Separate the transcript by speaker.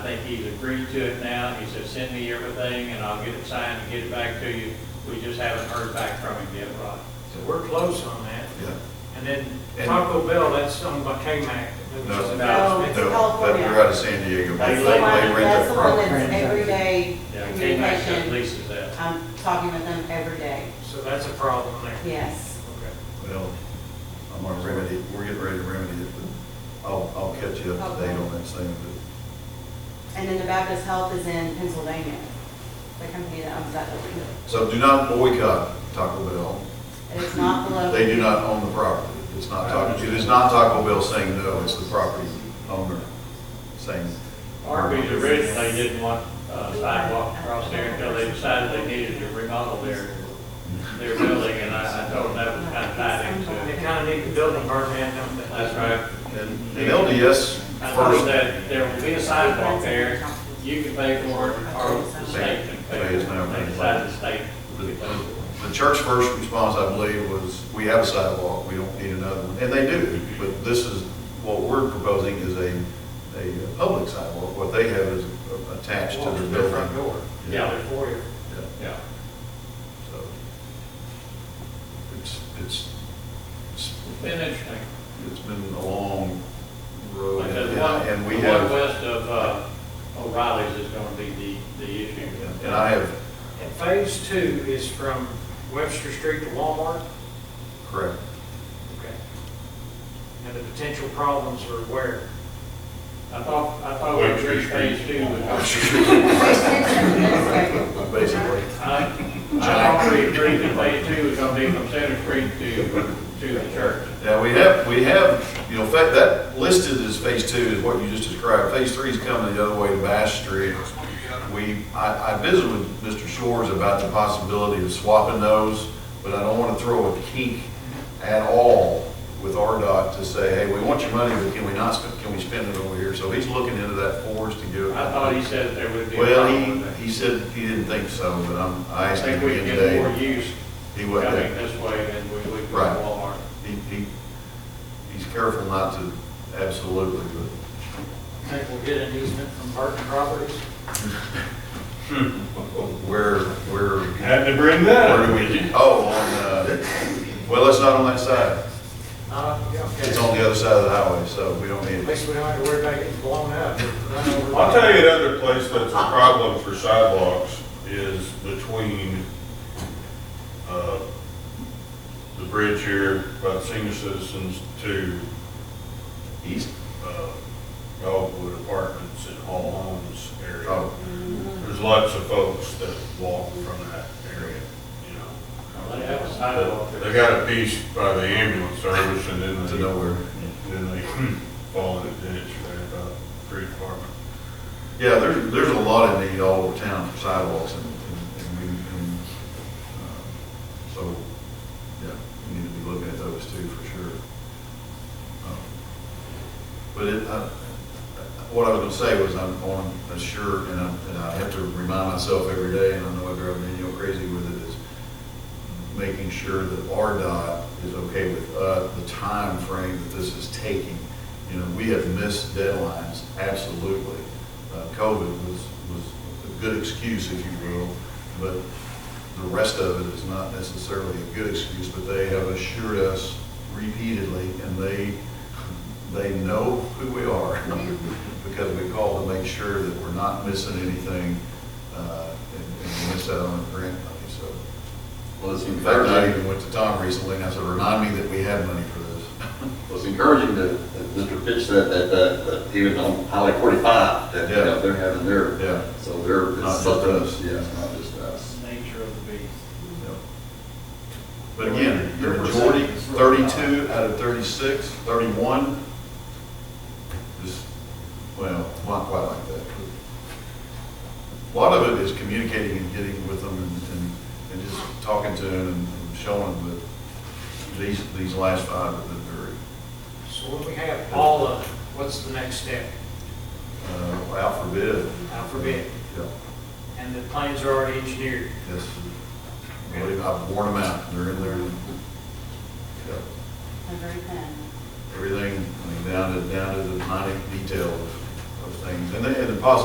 Speaker 1: think he's agreed to it now. He said, send me everything and I'll get it signed and get it back to you. We just haven't heard back from him yet, Rod.
Speaker 2: So we're close on that.
Speaker 3: Yeah.
Speaker 2: And then
Speaker 3: And-
Speaker 2: Taco Bell, that's owned by K-Mac. which is
Speaker 3: No.
Speaker 2: a
Speaker 4: No.
Speaker 2: management.
Speaker 3: No, that- They're out of San Diego. but
Speaker 4: That's
Speaker 3: They
Speaker 4: the
Speaker 3: they
Speaker 4: one,
Speaker 3: rent that
Speaker 4: that's the one
Speaker 3: property.
Speaker 4: that's everyday
Speaker 1: Yeah, K-Max just
Speaker 4: communication.
Speaker 1: leases that.
Speaker 4: I'm talking with them every day,
Speaker 2: So that's a problem there.
Speaker 4: yes.
Speaker 2: Okay.
Speaker 3: Well, I'm gonna remedy, we're getting ready to remedy it, but I'll, I'll catch you up to date on that soon.
Speaker 4: And then the Baptist Health is in Pennsylvania, the company that owns that building.
Speaker 3: but- So do not boycott Taco Bell.
Speaker 4: It is not the local.
Speaker 3: They do not own the property. It's not Taco, it is not Taco Bell saying no, it's the property owner saying.
Speaker 1: Arby's originally didn't want uh, sidewalk across there until they decided they needed to remodel their, their building. And I, I told them that was kind of tied into
Speaker 2: They
Speaker 1: it.
Speaker 2: kind of need the building burned down, don't they?
Speaker 1: That's right.
Speaker 3: And and LDS
Speaker 1: I told them
Speaker 3: first
Speaker 1: that there will be a sidewalk there. You can pay for it or the state can pay for it. They decided the state
Speaker 3: The-
Speaker 1: would pay.
Speaker 3: The the church's first response, I believe, was, we have a sidewalk, we don't need another one, and they do, but this is, what we're proposing is a, a public sidewalk, what they have is attached to
Speaker 2: Walk
Speaker 3: the
Speaker 2: to their
Speaker 3: building.
Speaker 2: front door.
Speaker 1: Yeah.
Speaker 2: Their foyer.
Speaker 3: Yeah,
Speaker 1: Yeah.
Speaker 3: so, it's, it's, it's,
Speaker 1: It's been interesting.
Speaker 3: it's been a long road,
Speaker 1: Like
Speaker 3: and
Speaker 1: the
Speaker 3: yeah,
Speaker 1: one,
Speaker 3: and we
Speaker 1: the
Speaker 3: have,
Speaker 1: one west of uh, O'Reilly's is going to be the, the issue.
Speaker 3: yeah, and I have,
Speaker 2: And phase two is from Webster Street to Walmart.
Speaker 3: correct,
Speaker 2: Okay. And the potential problems are where?
Speaker 1: I thought, I thought we reached phase two. was gonna be-
Speaker 3: basically,
Speaker 1: I, I already agreed that phase two was gonna be from Center Street to, to the church.
Speaker 3: Yeah, we have, we have, you know, fa- that listed as phase two is what you just described. Phase three is coming the other way to Bash Street. We, I, I visited with Mr. Shores about the possibility of swapping those, but I don't want to throw a kink at all with RDOT to say, hey, we want your money, but can we not, spend? can we spend it over here? So he's looking into that for us to give.
Speaker 1: I thought he said there would be. a
Speaker 3: Well,
Speaker 1: problem
Speaker 3: he,
Speaker 1: with that.
Speaker 3: he said he didn't think so, but I'm, I
Speaker 1: I
Speaker 3: asked him
Speaker 1: think we can
Speaker 3: again
Speaker 1: get more
Speaker 3: today.
Speaker 1: use
Speaker 3: He
Speaker 1: coming
Speaker 3: wasn't.
Speaker 1: this way than we would from
Speaker 3: Right.
Speaker 1: Walmart.
Speaker 3: He, he, he's careful not to absolutely, but
Speaker 2: Think we'll get an easement from Burton Properties?
Speaker 3: where, where,
Speaker 5: Had to bring that
Speaker 3: where do
Speaker 5: up.
Speaker 3: we, oh, on, uh, well, it's not on that side.
Speaker 2: Uh, yeah, okay.
Speaker 3: It's on the other side of the highway, so we don't
Speaker 2: At
Speaker 3: need it.
Speaker 2: least we don't have to worry about getting blown up.
Speaker 5: I'll tell you another place that's a problem for sidewalks is between, uh, the bridge here by the senior citizens to,
Speaker 3: East,
Speaker 5: uh, Dogwood Apartments and Hall Homes area.
Speaker 3: oh,
Speaker 5: There's lots of folks that walk from that area, you know.
Speaker 1: They have a sidewalk there.
Speaker 5: They got a piece by the ambulance service and then
Speaker 3: to
Speaker 5: they
Speaker 3: nowhere.
Speaker 5: Then they fall in a ditch there about three department.
Speaker 3: Yeah, there's, there's a lot of need all over town for sidewalks and, and, and we, and, uh, so, yeah, we need to be looking at those too, for sure. Um, But it, I, what I was gonna say was I'm on a shirt and I, and I have to remind myself every day, and I know I drive Daniel crazy with it, is making sure that RDOT is okay with, uh, the time frame that this is taking. You know, we have missed deadlines, absolutely. Uh, COVID was, was a good excuse, if you will, but the rest of it is not necessarily a good excuse, but they have assured us repeatedly, and they, they know who we are, because we call to make sure that we're not missing anything, uh, and, and miss out on grant money, so.
Speaker 6: Well, it's
Speaker 3: In fact, I
Speaker 6: encouraging,
Speaker 3: even went to Tom recently, and I said, remind me that we have money for this.
Speaker 6: well, it's encouraging that, that Mr. Fitch said that, uh, that even on Highway forty-five, that, you
Speaker 3: Yeah.
Speaker 6: know, they're having their,
Speaker 3: Yeah.
Speaker 6: so they're.
Speaker 3: Not just us.
Speaker 6: Yeah, it's not just us.
Speaker 1: Nature of the beast.
Speaker 3: But again, the majority, thirty-two out of 36, 31, just, well, not quite like that. A lot of it is communicating and getting with them and, and, and just talking to them and and showing them that these, these last five have been very,
Speaker 2: So when we have all of, it, what's the next step?
Speaker 3: uh, out for bid.
Speaker 2: Out for bid.
Speaker 3: Yeah,
Speaker 2: And the plans are already engineered.
Speaker 3: yes. Believe I've worn them out, they're in there. Yeah.
Speaker 4: They're very thin.
Speaker 3: everything, I mean, down to, down to the minute detail of of things. And then, and the possibility